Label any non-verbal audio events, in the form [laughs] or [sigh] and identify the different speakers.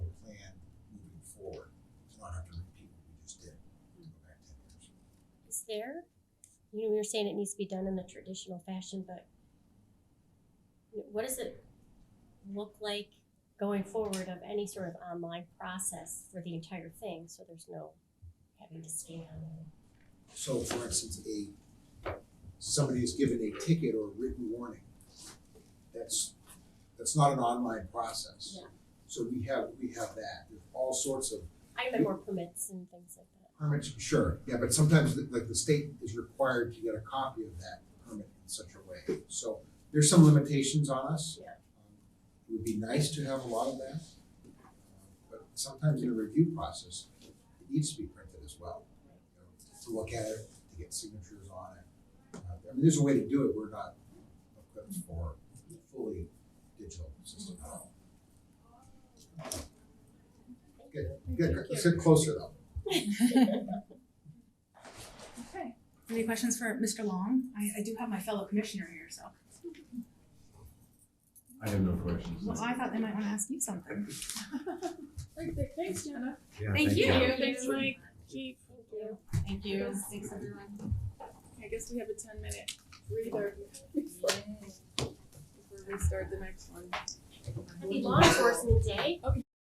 Speaker 1: care. You know, we were saying it needs to be done in the traditional fashion, but what does it look like going forward of any sort of online process for the entire thing, so there's no having to scan?
Speaker 2: So for instance, a, somebody is given a ticket or a written warning. That's, that's not an online process.
Speaker 1: Yeah.
Speaker 2: So we have, we have that, There's all sorts of
Speaker 1: I remember more permits and things like that.
Speaker 2: permits, sure, yeah, but sometimes the- like the state is required to get a copy of that permit in such a way. So there's some limitations on us.
Speaker 1: Yeah.
Speaker 2: Um, It would be nice to have a lot of that. But sometimes in a review process, it needs to be printed as well. you know, To look at it, to get signatures on it. Uh, I mean, there's a way to do it, we're not equipped for fully digital system at all. Good, good, let's get closer though.
Speaker 3: Okay. Any questions for Mr. Long? I, I do have my fellow commissioner here, so.
Speaker 4: I have no questions.
Speaker 3: Well, I thought they might wanna ask you something.
Speaker 5: [laughs] Thanks, Jenna.
Speaker 4: Yeah,
Speaker 3: Thank you.
Speaker 5: Thank you. Thanks, Mike. Keith.
Speaker 1: Thank you.
Speaker 3: Thank
Speaker 5: Thanks, everyone. I guess we have a ten minute [laughs] breather before we start the next one.
Speaker 1: Happy law enforcement day.
Speaker 5: Oh,